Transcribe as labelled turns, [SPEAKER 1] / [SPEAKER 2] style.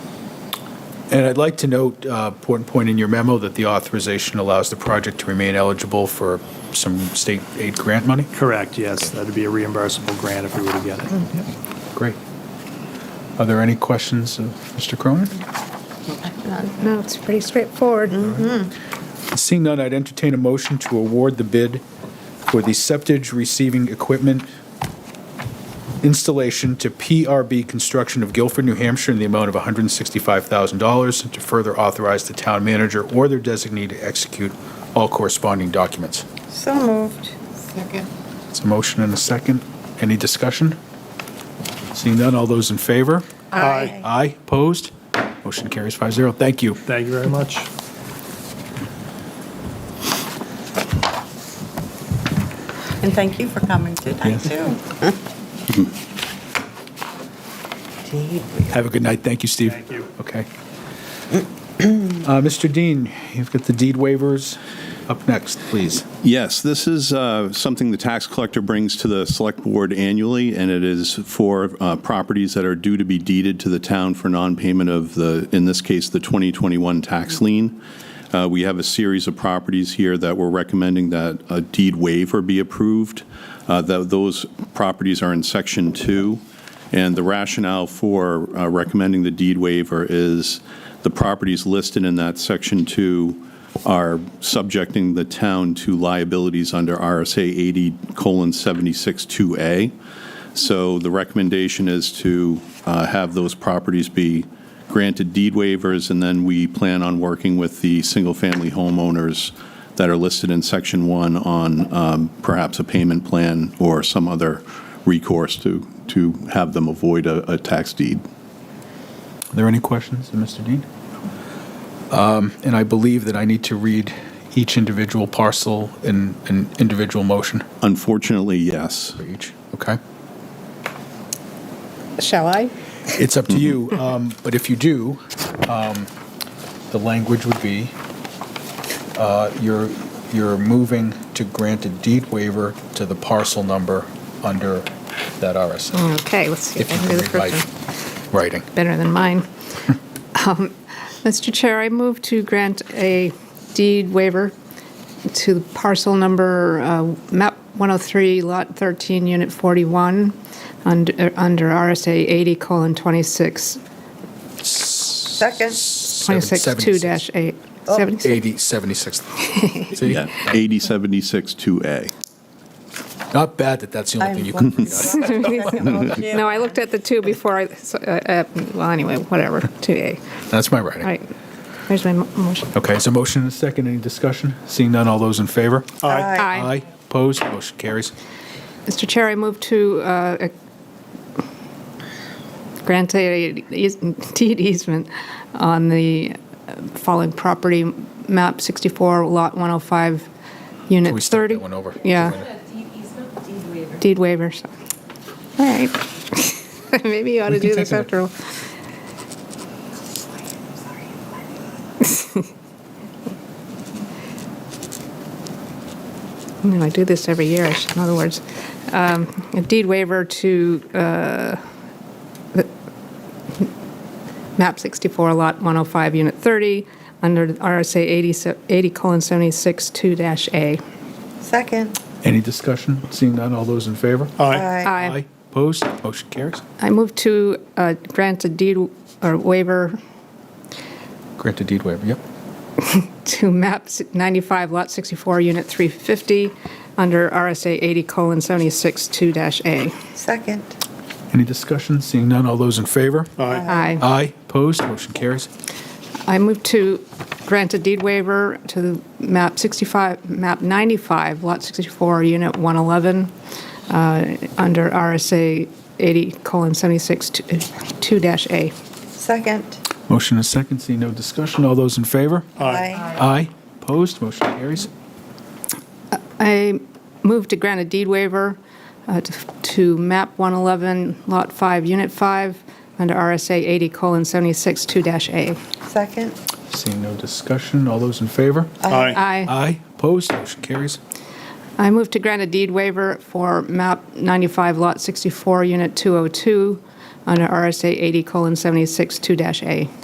[SPEAKER 1] And I'd like to note, uh, important point in your memo, that the authorization allows the project to remain eligible for some state aid grant money.
[SPEAKER 2] Correct, yes. That'd be a reimbursable grant if we were to get it.
[SPEAKER 1] Great. Are there any questions of Mr. Cronin?
[SPEAKER 3] No, it's pretty straightforward.
[SPEAKER 1] Seeing none, I'd entertain a motion to award the bid for the septage receiving equipment installation to PRB Construction of Guilford, New Hampshire, in the amount of $165,000, and to further authorize the town manager or their designee to execute all corresponding documents.
[SPEAKER 4] So moved. Second.
[SPEAKER 1] It's a motion and a second. Any discussion? Seeing none, all those in favor?
[SPEAKER 2] Aye.
[SPEAKER 1] Aye, opposed? Motion carries 5-0. Thank you.
[SPEAKER 2] Thank you very much.
[SPEAKER 4] And thank you for coming tonight,
[SPEAKER 1] Yes.
[SPEAKER 4] too.
[SPEAKER 1] Have a good night. Thank you, Steve.
[SPEAKER 2] Thank you.
[SPEAKER 1] Okay. Uh, Mr. Dean, you've got the deed waivers up next, please.
[SPEAKER 5] Yes, this is uh, something the tax collector brings to the select board annually, and it is for uh, properties that are due to be deeded to the town for non-payment of the, in this case, the 2021 tax lien. Uh, We have a series of properties here that we're recommending that a deed waiver be approved. Uh, tho- Those properties are in Section 2. And the rationale for uh, recommending the deed waiver is the properties listed in that Section 2 are subjecting the town to liabilities under RSA 80 colon 76 2A. So the recommendation is to uh, have those properties be granted deed waivers, and then we plan on working with the single-family homeowners that are listed in Section 1 on um, perhaps a payment plan or some other recourse to, to have them avoid a, a tax deed.
[SPEAKER 1] Are there any questions of Mr. Dean? Um, And I believe that I need to read each individual parcel in an individual motion
[SPEAKER 5] Unfortunately, yes.
[SPEAKER 1] for each, okay?
[SPEAKER 3] Shall I?
[SPEAKER 1] It's up to you, um, but if you do, um, the language would be, uh, you're, you're moving to grant a deed waiver to the parcel number under that RSA.
[SPEAKER 3] Okay, let's see.
[SPEAKER 1] If
[SPEAKER 3] if I
[SPEAKER 1] you
[SPEAKER 3] can do
[SPEAKER 1] can
[SPEAKER 3] Mm, the
[SPEAKER 1] read my
[SPEAKER 3] first one.
[SPEAKER 1] writing.
[SPEAKER 3] Better than mine. Um, Mr. Chair, I move to grant a deed waiver to parcel number, uh, map 103, lot 13, unit 41, under under RSA 80 colon 26,
[SPEAKER 4] Second.
[SPEAKER 3] 26 2 dash 8. 76.
[SPEAKER 1] 80, 76. See?
[SPEAKER 5] Yeah, 80 76 2A.
[SPEAKER 1] Not bad that that's the only thing you can read out.
[SPEAKER 3] No, I looked at the 2 before I, so, uh, uh, well, anyway, whatever, 2A.
[SPEAKER 1] That's my
[SPEAKER 3] All
[SPEAKER 1] writing.
[SPEAKER 3] right, here's my mo- motion.
[SPEAKER 1] Okay, so motion and a second, any discussion? Seeing none, all those in favor?
[SPEAKER 2] Aye.
[SPEAKER 1] Aye, opposed, motion carries.
[SPEAKER 3] Mr. Chair, I move to uh, grant a eas- deed easement on the following property, map 64, lot 105,
[SPEAKER 1] Can we
[SPEAKER 3] unit
[SPEAKER 1] start
[SPEAKER 3] 30.
[SPEAKER 1] that one over?
[SPEAKER 3] Yeah,
[SPEAKER 6] Deed easement, deed waiver.
[SPEAKER 3] deed waiver, so, all right. Maybe you ought to do this after all. You know, I do this every year, I should- in other words. Um, A deed waiver to uh, the- map 64, lot 105, unit 30, under RSA 80 se- 80 colon 76 2 dash A.
[SPEAKER 4] Second.
[SPEAKER 1] Any discussion? Seeing none, all those in favor?
[SPEAKER 2] Aye.
[SPEAKER 1] Aye. Opposed? Motion carries.
[SPEAKER 3] I move to uh, grant a deed or waiver
[SPEAKER 1] Granted deed waiver, yep.
[SPEAKER 3] to map 95, lot 64, unit 350, under RSA 80 colon 76 2 dash A.
[SPEAKER 4] Second.
[SPEAKER 1] Any discussion? Seeing none, all those in favor?
[SPEAKER 2] Aye.
[SPEAKER 3] Aye.
[SPEAKER 1] Aye. Opposed? Motion carries.
[SPEAKER 3] I move to grant a deed waiver to map 65, map 95, lot 64, unit 111, uh, under RSA 80 colon 76 2 dash A.
[SPEAKER 4] Second.
[SPEAKER 1] Motion and second, seeing no discussion, all those in favor?
[SPEAKER 4] Aye.
[SPEAKER 1] Aye. Opposed? Motion carries.
[SPEAKER 3] I move to grant a deed waiver uh, to- to map 111, lot 5, unit 5, under RSA 80 colon 76 2 dash A.
[SPEAKER 4] Second.
[SPEAKER 1] Seeing no discussion, all those in favor?
[SPEAKER 2] Aye.
[SPEAKER 3] Aye.
[SPEAKER 1] Aye. Opposed? Motion carries.
[SPEAKER 3] I move to grant a deed waiver for map 95, lot oh 64, unit 202, under RSA 80 colon 76 2 dash A.